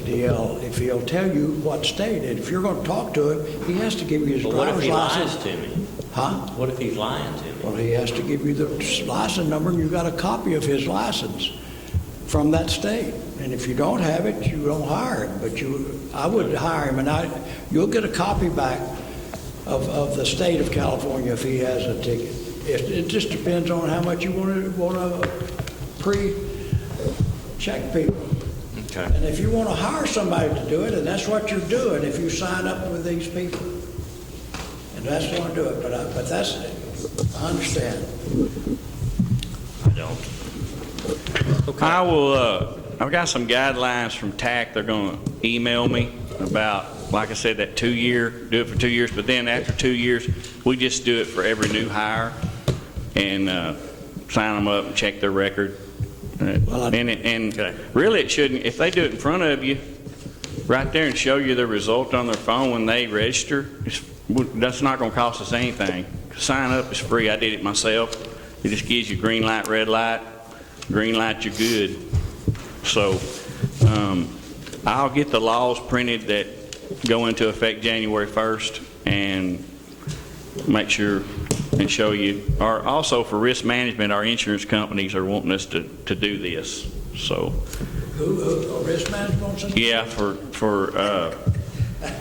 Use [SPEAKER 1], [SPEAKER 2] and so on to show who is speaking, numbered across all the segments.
[SPEAKER 1] CDL if he'll tell you what state. And if you're going to talk to him, he has to give you his
[SPEAKER 2] But what if
[SPEAKER 1] driver's
[SPEAKER 2] he lies
[SPEAKER 1] license.
[SPEAKER 2] to me?
[SPEAKER 1] Huh?
[SPEAKER 2] What if he's lying to me?
[SPEAKER 1] Well, he has to give you the license number, and you got a copy of his license from that state. And if you don't have it, you don't hire him, but you, I would hire him, and I, you'll get a copy back of, of the state of California if he has a ticket. It, it just depends on how much you want to, want to pre-check people.
[SPEAKER 2] Okay.
[SPEAKER 1] And if you want to hire somebody to do it, and that's what you're doing if you sign up with these people. And that's going to do it, but I, but that's, I understand.
[SPEAKER 2] I don't.
[SPEAKER 3] I will, uh, I've got some guidelines from TAC, they're gonna email me about, like I said, that two-year, do it for two years, but then after two years, we just do it for every new hire and, uh, sign them up and check their record. And,
[SPEAKER 1] Well, I-
[SPEAKER 3] it- and really, it shouldn't, if they do it in front of you, right there and show you the result on their phone when they register, it's- that's not gonna cost us anything. Sign up is free, I did it myself. It just gives you green light, red light, green light, you're good. So, um, I'll get the laws printed that go into effect January 1st and make sure and show you. Or also for risk management, our insurance companies are wanting us to, to do this, so.
[SPEAKER 1] Who, who, a risk management on some-
[SPEAKER 3] Yeah, for, for uh,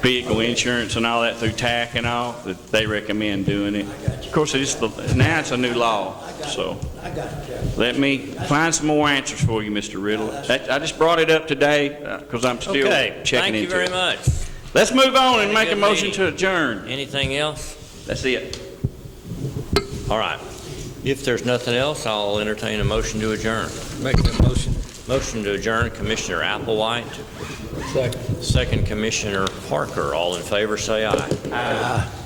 [SPEAKER 3] vehicle insurance and all that through TAC and all, that they recommend doing it. Of course, it's, the now it's a new law,
[SPEAKER 1] I got
[SPEAKER 3] so
[SPEAKER 1] it, I got it, Jeff.
[SPEAKER 3] let me find some more answers for you, Mr. Riddle. That- I just brought it up today because I'm still
[SPEAKER 2] Okay, thank
[SPEAKER 3] checking
[SPEAKER 2] you
[SPEAKER 3] into
[SPEAKER 2] very
[SPEAKER 3] it.
[SPEAKER 2] much.
[SPEAKER 3] Let's move on
[SPEAKER 2] Had
[SPEAKER 3] and
[SPEAKER 2] a
[SPEAKER 3] make a
[SPEAKER 2] good
[SPEAKER 3] motion
[SPEAKER 2] meeting.
[SPEAKER 3] to adjourn.
[SPEAKER 2] Anything else?
[SPEAKER 3] That's it.
[SPEAKER 2] All right. If there's nothing else, I'll entertain a motion to adjourn.
[SPEAKER 4] Make that motion.
[SPEAKER 2] Motion to adjourn, Commissioner Applewhite.
[SPEAKER 4] Second.
[SPEAKER 2] Second, Commissioner Parker. All in favor, say aye. Aye.